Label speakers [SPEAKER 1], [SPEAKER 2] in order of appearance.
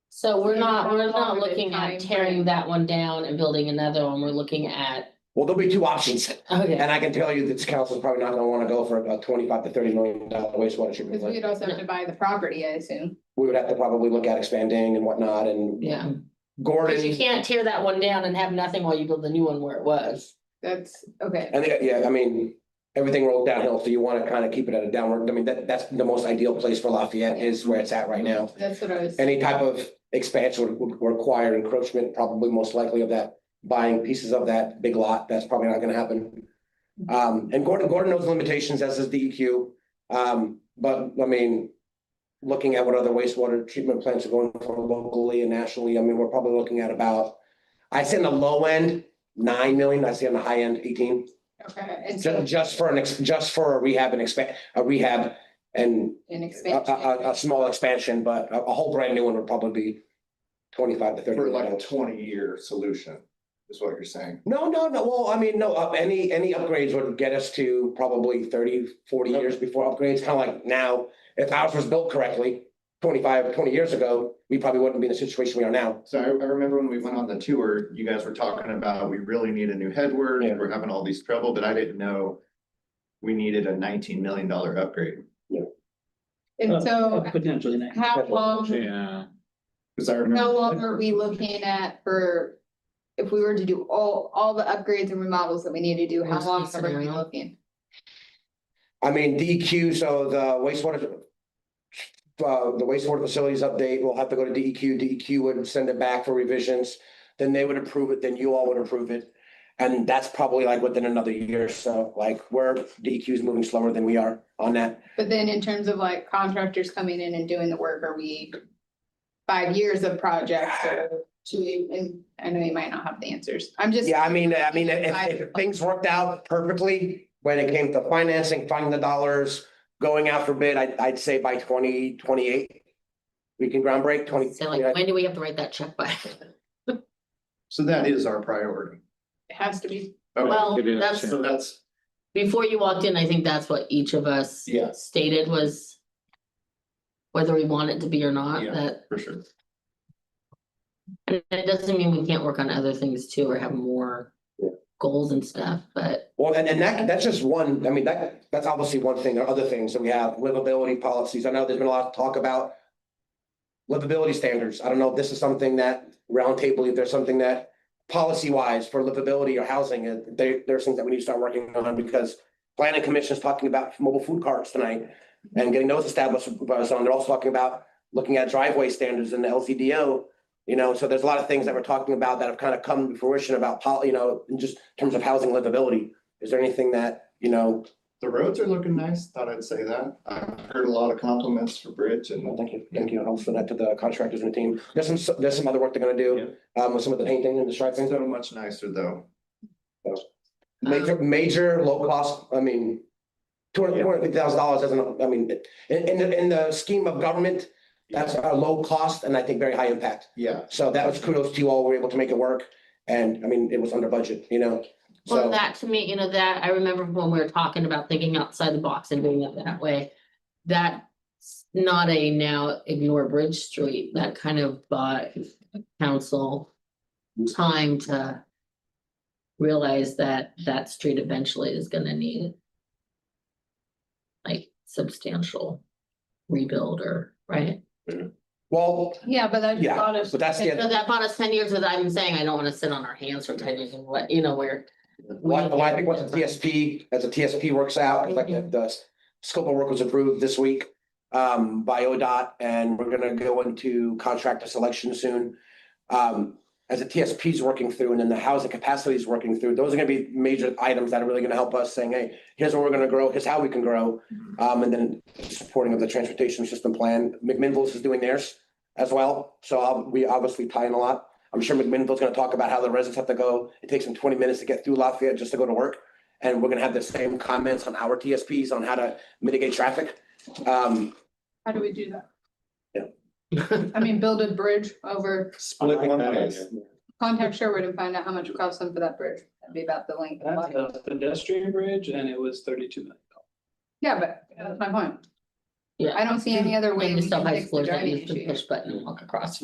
[SPEAKER 1] So we're
[SPEAKER 2] Okay,
[SPEAKER 1] not,
[SPEAKER 2] how
[SPEAKER 1] we're
[SPEAKER 2] long
[SPEAKER 1] not
[SPEAKER 2] of a
[SPEAKER 1] looking at
[SPEAKER 2] time
[SPEAKER 1] tearing
[SPEAKER 2] frame?
[SPEAKER 1] that one down and building another one, we're looking at,
[SPEAKER 3] Well, there'll be two options,
[SPEAKER 1] okay,
[SPEAKER 3] and I can tell you that this council's probably not gonna wanna go for about twenty-five to thirty million dollar wastewater treatment
[SPEAKER 2] Cause we'd
[SPEAKER 3] plant.
[SPEAKER 2] also have to buy the property, I assume.
[SPEAKER 3] We would have to probably look at expanding and whatnot, and
[SPEAKER 1] yeah. But you
[SPEAKER 3] Gordon,
[SPEAKER 1] can't tear that one down and have nothing while you build the new one where it was.
[SPEAKER 2] That's, okay.
[SPEAKER 3] and yeah, I mean, everything rolled downhill, so you wanna kinda keep it at a downward, I mean, that, that's the most ideal place for Lafayette is where it's at right now.
[SPEAKER 2] That's what I was,
[SPEAKER 3] any type of expansion would would require encroachment, probably most likely of that, buying pieces of that big lot, that's probably not gonna happen. Um, and Gordon, Gordon knows the limitations, as does DEQ, um, but, I mean, looking at what other wastewater treatment plants are going for locally and nationally, I mean, we're probably looking at about, I say on the low end, nine million, I say on the high end, eighteen,
[SPEAKER 2] okay, and
[SPEAKER 3] ju-
[SPEAKER 2] so
[SPEAKER 3] just for an, ex- just for a rehab and expand, a rehab and
[SPEAKER 2] an
[SPEAKER 3] a,
[SPEAKER 2] expansion.
[SPEAKER 3] a, a, a small expansion, but a, a whole brand new one would probably be twenty-five to thirty.
[SPEAKER 4] For like a
[SPEAKER 3] million.
[SPEAKER 4] twenty-year solution, is what you're saying.
[SPEAKER 3] No, no, no, well, I mean, no, up, any, any upgrades would get us to probably 30, 40 years before upgrades, kind of like now. If ours was built correctly, 25, 20 years ago, we probably wouldn't be in the situation we are now.
[SPEAKER 4] So I, I remember when we went on the tour, you guys were talking about, we really need a new headward,
[SPEAKER 3] Yeah.
[SPEAKER 4] we're having all these trouble, but I didn't know we needed a nineteen million dollar upgrade.
[SPEAKER 2] And so
[SPEAKER 5] Potentially next.
[SPEAKER 2] how long,
[SPEAKER 6] Yeah.
[SPEAKER 4] Cause I remember,
[SPEAKER 2] how long are we looking at for? If we were to do all, all the upgrades and remodels that we need to do, how
[SPEAKER 1] Worst
[SPEAKER 2] long
[SPEAKER 1] case
[SPEAKER 2] are we
[SPEAKER 1] scenario.
[SPEAKER 2] looking?
[SPEAKER 3] I mean, DEQ, so the wastewater. Uh, the wastewater facilities update, we'll have to E go to DEQ, DEQ would send it back for revisions. Then they would approve it, then you all would approve it. And that's probably like within another year or so, like we're, DEQ is moving slower than we are on that.
[SPEAKER 2] But then in terms of like contractors coming in and doing the work, are we? Five years of projects or two, and I know you might not have the answers. I'm just.
[SPEAKER 3] Yeah, I mean, I mean, if, if things worked out perfectly, when it came to financing, finding the dollars. Going out for bid, I'd, I'd say by twenty twenty-eight. We can ground break twenty.
[SPEAKER 1] So like, when do we have to write that check by?
[SPEAKER 4] so that is our priority.
[SPEAKER 2] It has to be.
[SPEAKER 4] Okay,
[SPEAKER 1] Well,
[SPEAKER 6] It is,
[SPEAKER 1] that's,
[SPEAKER 4] So that's,
[SPEAKER 1] before you walked in, I think that's what each of us
[SPEAKER 4] yeah,
[SPEAKER 1] stated was. Whether we want it to be or not,
[SPEAKER 4] Yeah.
[SPEAKER 1] that,
[SPEAKER 4] for sure.
[SPEAKER 1] and it doesn't mean we can't work on other things too, or have more. Goals and stuff, but
[SPEAKER 3] Well, and, and that, that's just one, I mean, that, that's obviously one thing, there are other things that we have, livability policies, I know there's been a lot of talk about. Livability standards, I don't know if this is something that roundtable, if there's something that policy wise for livability or housing, uh, there, there's things that we need to start working on because. Planning Commission is talking about mobile food carts tonight and getting those established, by us on. they're also talking about looking at driveway standards and the LCDO. You know, so there's a lot of things that we're talking about that have kind of come to fruition about, pol- you know, in just terms of housing livability. Is there anything that, you know,
[SPEAKER 4] The roads are looking nice, thought I'd say that. I've heard a lot of compliments for Bridge
[SPEAKER 3] well,
[SPEAKER 4] and
[SPEAKER 3] thank you, thank you, I'll send that to the contractors and the team. There's some, there's some other work they're gonna do, um, with some of the painting and the striping.
[SPEAKER 4] so much nicer though.
[SPEAKER 1] Um,
[SPEAKER 3] Major, major low cost, I mean, two hundred, two hundred fifty thousand dollars doesn't, I mean, in, in the, in the scheme of government, that's a low cost and I think very high impact.
[SPEAKER 4] Yeah,
[SPEAKER 3] So that was kudos to you all, we were able to make it work. And I mean, it was under budget, you know,
[SPEAKER 1] well,
[SPEAKER 3] so,
[SPEAKER 1] that to me, you know, that I remember when we were talking about thinking outside the box and doing it that way. That's not a now ignore Bridge Street, that kind of bought council time to. Realize that that street eventually is gonna need. Like substantial rebuild or, right?
[SPEAKER 3] well,
[SPEAKER 2] Yeah, but that's.
[SPEAKER 3] Yeah,
[SPEAKER 2] a lot of-
[SPEAKER 3] but that's the-
[SPEAKER 1] So that bought us ten years, but I'm saying I don't wanna sit on our hands for ten years and what, you know, where.
[SPEAKER 3] Well, I- well, I think once the TSP, as the TSP works out, like the, the scope of work was approved this week. Um, by ODOT and we're gonna go into contractor selection soon. Um, as the TSP is working through and then the housing capacity is working through, those are gonna be major items that are really gonna help us saying, hey, here's where we're gonna grow, here's how we can grow. Um, and then supporting of the transportation system plan, McMinnville's is doing theirs as well. So I'll- we obviously tie in a lot. I'm sure McMinnville's gonna talk about how the residents have to go, it takes them twenty minutes to get through Lafayette just to go to work. And we're gonna have the same comments on our TSPs on how to mitigate traffic. Um,
[SPEAKER 2] How do we do that?
[SPEAKER 3] Yeah.
[SPEAKER 2] I mean, build a bridge over,
[SPEAKER 4] split one way.
[SPEAKER 2] contact Sherwood and find out how much it costs them for that bridge. That'd be about the length. of
[SPEAKER 5] That's
[SPEAKER 2] life.
[SPEAKER 5] a pedestrian bridge and it was thirty-two million.
[SPEAKER 2] Yeah, but that's my point.
[SPEAKER 1] Yeah.
[SPEAKER 2] I don't see any other way.
[SPEAKER 1] And
[SPEAKER 2] we
[SPEAKER 1] you still
[SPEAKER 2] can
[SPEAKER 1] have
[SPEAKER 2] fix the
[SPEAKER 1] explorers that
[SPEAKER 2] driving
[SPEAKER 1] use the
[SPEAKER 2] issue.
[SPEAKER 1] push button and walk across.